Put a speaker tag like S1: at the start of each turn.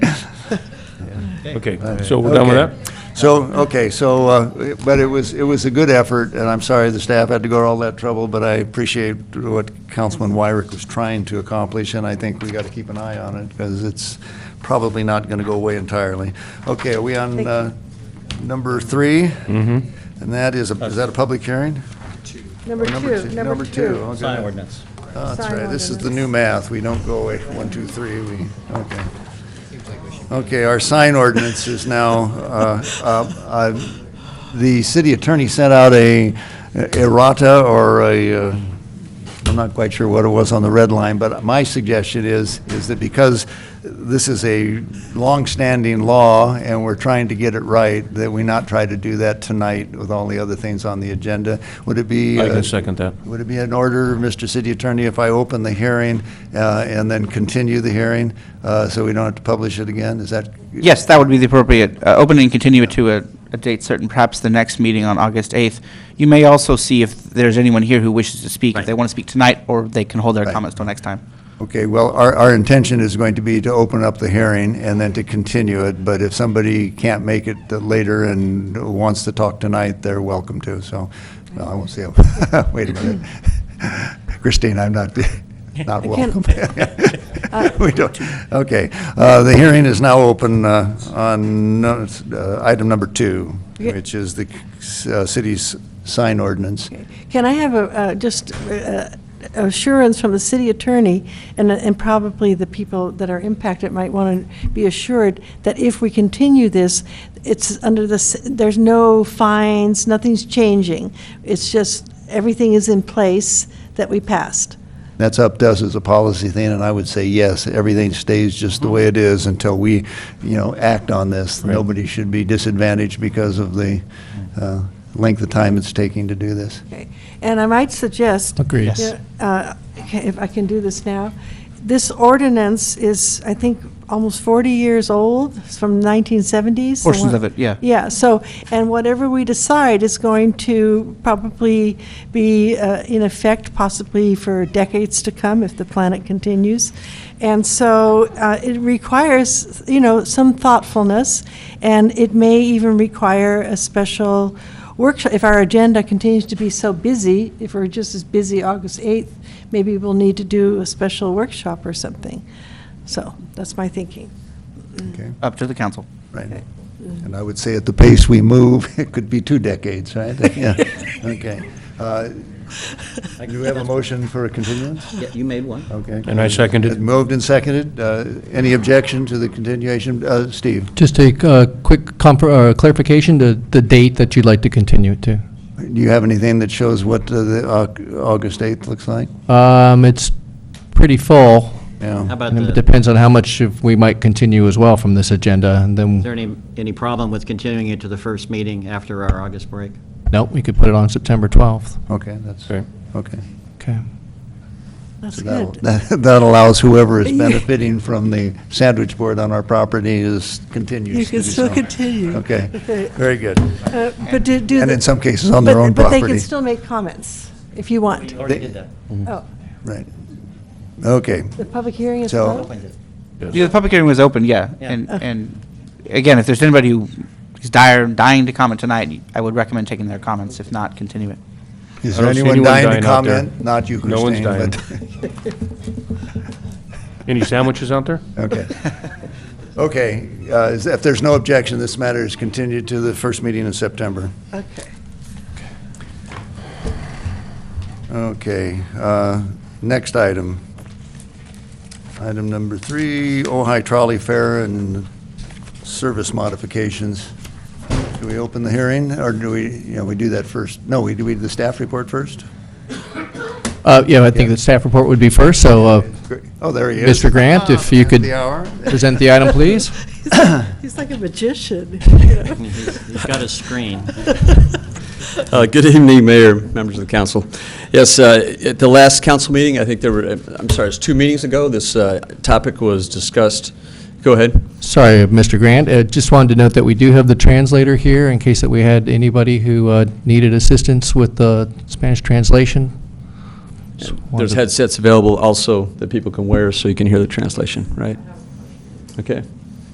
S1: Okay, so we're done with
S2: Okay.
S1: that?
S2: So, okay, so, uh, but it was, it was a good effort, and I'm sorry the staff had to go to all that trouble, but I appreciate what Councilman Wyrick was trying to accomplish, and I think we got to keep an eye on it, because it's probably not going to go away entirely. Okay, are we on
S3: Thank you.
S2: uh, number 3 Mm-hmm. And that is, a is that a public hearing?
S3: Number
S2: Or
S3: two, number two.
S2: okay.
S4: Sign ordinance.
S2: Oh, That's
S3: Sign
S2: right, this is the
S3: ordinance.
S2: new math, we don't go away, one, two, three, we, okay. Okay, our sign ordinance is now, uh, uh, uh, the city attorney sent out a errata or a, uh, I'm not quite sure what it was on the red line, but my suggestion is, is that because this is a longstanding law and we're trying to get it right, that we not try to do that tonight with all the other things on the agenda. Would it be?
S1: I
S2: uh,
S1: can second that.
S2: would it be in order, Mr. City Attorney, if I open the hearing uh, and then continue the hearing, uh, so we don't have to publish it again? Is that?
S5: Yes, that would be the appropriate, uh, open and continue it to a, a date certain, perhaps the next meeting on August 8th. You may also see if there's anyone here who wishes to speak, if they want to speak tonight, or they can hold their
S2: Right.
S5: comments till next time.
S2: Okay, well, our, our intention is going to be to open up the hearing and then to continue it, but if somebody can't make it later and wants to talk tonight, they're welcome to, so, no, I won't say, wait a minute. Christine, I'm not, not welcome. We don't, okay, uh, the hearing is now open uh, on uh, item number two,
S3: Okay.
S2: which is the uh, city's sign ordinance.
S3: Can I have a, uh, just uh, assurance from the city attorney, and and probably the people that are impacted might want to be assured that if we continue this, it's under the, s- there's no fines, nothing's changing. It's just, everything is in place that we passed.
S2: That's up to us as a policy thing, and I would say yes, everything stays just the way it is until we, you know, act on this. Nobody should be disadvantaged because of the uh, length of time it's taking to do this.
S3: Okay, and I might suggest.
S6: Agreed.
S3: Yeah, uh, okay, If I can do this now, this ordinance is, I think, almost 40 years old, it's from 1970s. so
S5: Portions
S3: what-
S5: of it, yeah.
S3: Yeah, so, and whatever we decide is going to probably be uh, in effect possibly for decades to come if the planet continues. And so uh, it requires, you know, some thoughtfulness, and it may even require a special workshop, if our agenda continues to be so busy, if we're just as busy August 8th, maybe we'll need to do a special workshop or something. So that's my thinking.
S2: Okay,
S5: Up to the council.
S2: right. And I would say at the pace we move, it could be two decades, right? Yeah, okay. Uh, Do we have a motion for a continuance?
S4: Yeah, you made one.
S2: Okay.
S1: And I seconded.
S2: It Moved and seconded. Uh, Any objection to the continuation? Uh, Steve?
S6: Just a uh, quick compr- uh, clarification, the, the date that you'd like to continue to.
S2: Do you have anything that shows what uh, the Au- August 8th looks like?
S6: Um, It's pretty full,
S4: How
S2: Yeah.
S4: about
S6: and
S4: the,
S6: it
S4: is
S6: depends on how much of we might continue as well from this agenda, and then,
S4: there any, any problem with continuing it to the first meeting after our August break?
S6: no, we could put it on September 12th.
S2: Okay, that's,
S1: Okay.
S2: okay.
S6: Okay.
S3: That's
S2: So that'll-
S3: good.
S2: That allows whoever is benefiting from the sandwich board on our property is continues
S3: You
S2: to
S3: can
S2: do
S3: still
S2: so.
S3: continue.
S2: Okay,
S3: Okay.
S2: very good.
S3: Uh, But do, do.
S2: And
S3: the-
S2: in some cases, on their
S3: but-
S2: own
S3: But they
S2: property.
S3: can still make comments, if you want.
S4: already
S2: They-
S4: did that.
S3: Oh,
S2: Right. Okay,
S3: the public hearing is
S2: So-
S3: closed?
S5: Yeah, the public hearing was open, yeah.
S4: Yeah.
S5: And, and again, if there's anybody who is dire, dying to comment tonight, I would recommend taking their comments, if not, continue it.
S2: is
S1: I
S2: there
S1: don't see
S2: anyone
S1: anyone
S2: dying to
S1: dying out there.
S2: comment? Not you,
S1: No one's
S2: Christine,
S1: dying.
S2: but,
S1: Any sandwiches out there?
S2: okay. Okay, uh, is- if there's no objection, this matter is continued to the first meeting in September.
S3: Okay.
S2: Okay, uh, next item. Item number three, Ojai Trolley Fair and service modifications. Do we open the hearing, or do we, you know, we do that first? No, we do we do the staff report first?
S6: Uh, Yeah, I think the staff report would be first, so uh,
S2: Oh, there he is. Oh,
S6: Mr. Grant, if you could
S2: The hour.
S6: present the item, please.
S3: He's like a magician.
S4: He's he's got a screen.
S7: Uh, Good evening, Mayor, members of the council. Yes, uh, at the last council meeting, I think there were, uh, I'm sorry, it's two meetings ago, this uh, topic was discussed. Go ahead.
S6: Sorry, Mr. Grant, Uh, just wanted to note that we do have the translator here, in case that we had anybody who uh, needed assistance with the Spanish translation. Just wanted
S7: There's
S6: to-
S7: headsets available also that people can wear so you can hear the translation, right? Okay.